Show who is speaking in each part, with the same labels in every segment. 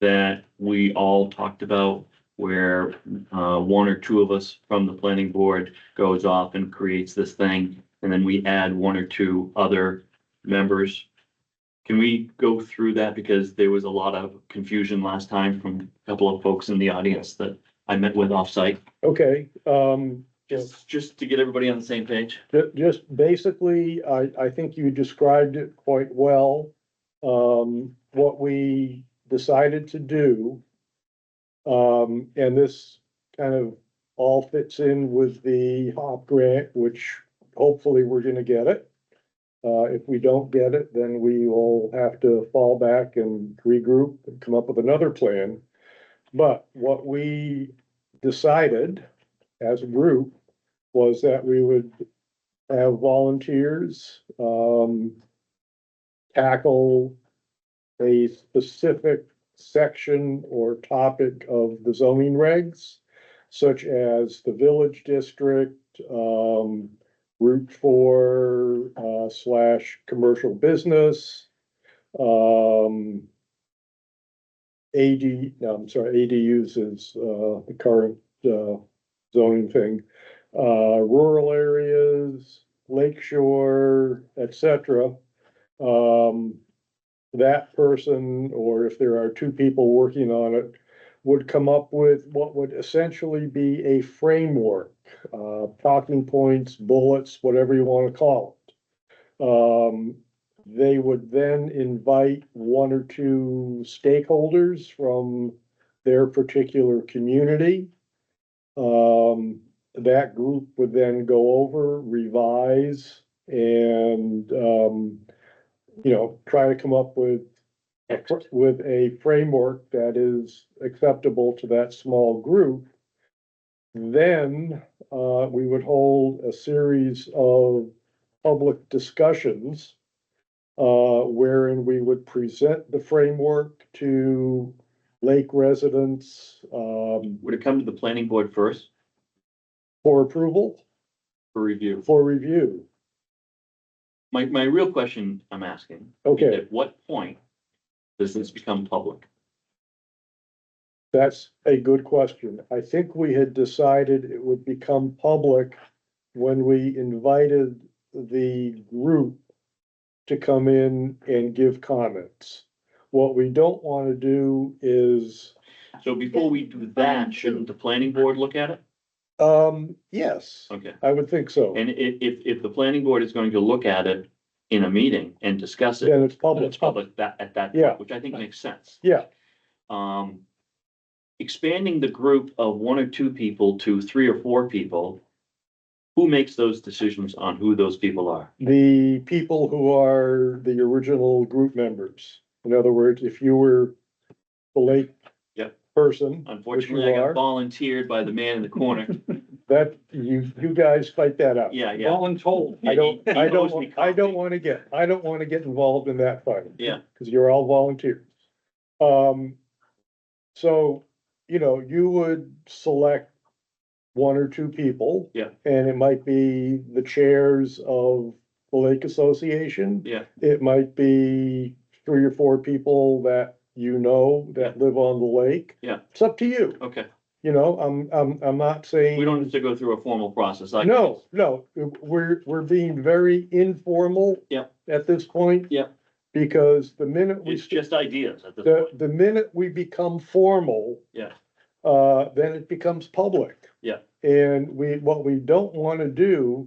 Speaker 1: that we all talked about where uh, one or two of us from the planning board goes off and creates this thing, and then we add one or two other members. Can we go through that? Because there was a lot of confusion last time from a couple of folks in the audience that I met with offsite.
Speaker 2: Okay, um,
Speaker 1: Just, just to get everybody on the same page.
Speaker 2: ju- just basically, I, I think you described it quite well. Um, what we decided to do. Um, and this kind of all fits in with the HOP grant, which hopefully we're gonna get it. Uh, if we don't get it, then we will have to fall back and regroup and come up with another plan. But what we decided as a group was that we would have volunteers, um, tackle a specific section or topic of the zoning regs, such as the village district, um, Route four, uh, slash commercial business, um, AD, no, I'm sorry, ADUs is, uh, the current, uh, zoning thing uh, rural areas, lake shore, et cetera. Um, that person, or if there are two people working on it, would come up with what would essentially be a framework, uh, talking points, bullets, whatever you want to call it. Um, they would then invite one or two stakeholders from their particular community. Um, that group would then go over, revise, and, um, you know, try to come up with a fr- with a framework that is acceptable to that small group. Then, uh, we would hold a series of public discussions uh, wherein we would present the framework to lake residents, um,
Speaker 1: Would it come to the planning board first
Speaker 2: for approval,
Speaker 1: for review?
Speaker 2: for review.
Speaker 1: My, my real question I'm asking.
Speaker 2: Okay,
Speaker 1: At what point does this become public?
Speaker 2: that's a good question. I think we had decided it would become public when we invited the group to come in and give comments. What we don't want to do is,
Speaker 1: So before we do that, shouldn't the planning board look at it?
Speaker 2: um, yes,
Speaker 1: Okay,
Speaker 2: I would think so.
Speaker 1: and i- if, if the planning board is going to look at it in a meeting and discuss it,
Speaker 2: Then it's
Speaker 1: then
Speaker 2: public.
Speaker 1: it's public that, at that,
Speaker 2: Yeah.
Speaker 1: point, which I think makes sense.
Speaker 2: Yeah.
Speaker 1: Um, expanding the group of one or two people to three or four people, who makes those decisions on who those people are?
Speaker 2: The people who are the original group members. In other words, if you were the late
Speaker 1: Yep.
Speaker 2: person, which you
Speaker 1: Unfortunately, I got
Speaker 2: are,
Speaker 1: volunteered by the man in the corner.
Speaker 2: that, you, you guys fight that out.
Speaker 1: Yeah, yeah.
Speaker 3: Voluntold.
Speaker 2: I don't,
Speaker 1: He- he
Speaker 2: I
Speaker 1: owes
Speaker 2: don't,
Speaker 1: me
Speaker 2: wa- I don't
Speaker 1: coffee.
Speaker 2: wanna get, I don't wanna get involved in that fight.
Speaker 1: Yeah.
Speaker 2: Cause you're all volunteers. Um, so, you know, you would select one or two people.
Speaker 1: Yeah.
Speaker 2: And it might be the chairs of the Lake Association.
Speaker 1: Yeah.
Speaker 2: It might be three or four people that you know that live on the lake.
Speaker 1: Yeah.
Speaker 2: It's up to you,
Speaker 1: Okay,
Speaker 2: you know, I'm, I'm, I'm not saying.
Speaker 1: we don't have to go through a formal process. I-
Speaker 2: No, no, we're, we're being very informal.
Speaker 1: Yep.
Speaker 2: At this point.
Speaker 1: Yep.
Speaker 2: Because the minute we,
Speaker 1: It's just ideas at this
Speaker 2: the,
Speaker 1: point.
Speaker 2: the minute we become formal.
Speaker 1: Yeah.
Speaker 2: Uh, then it becomes public.
Speaker 1: Yeah.
Speaker 2: And we, what we don't want to do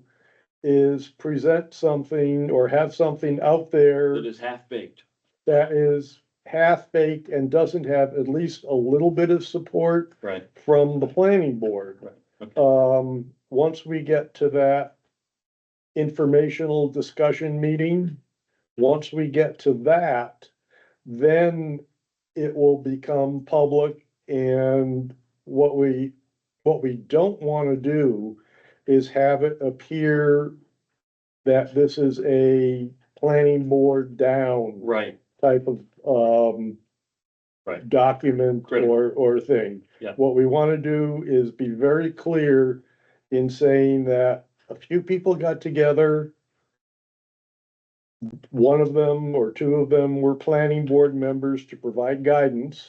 Speaker 2: is present something or have something out there
Speaker 1: It is half baked.
Speaker 2: that is half-baked and doesn't have at least a little bit of support
Speaker 1: Right.
Speaker 2: from the planning board.
Speaker 1: Right,
Speaker 2: Um, once we get to that informational discussion meeting, once we get to that, then it will become public and what we, what we don't want to do is have it appear that this is a planning board down
Speaker 1: Right,
Speaker 2: type of, um,
Speaker 1: Right.
Speaker 2: document
Speaker 1: Critical.
Speaker 2: or, or thing.
Speaker 1: Yeah.
Speaker 2: What we want to do is be very clear in saying that a few people got together. One of them or two of them were planning board members to provide guidance.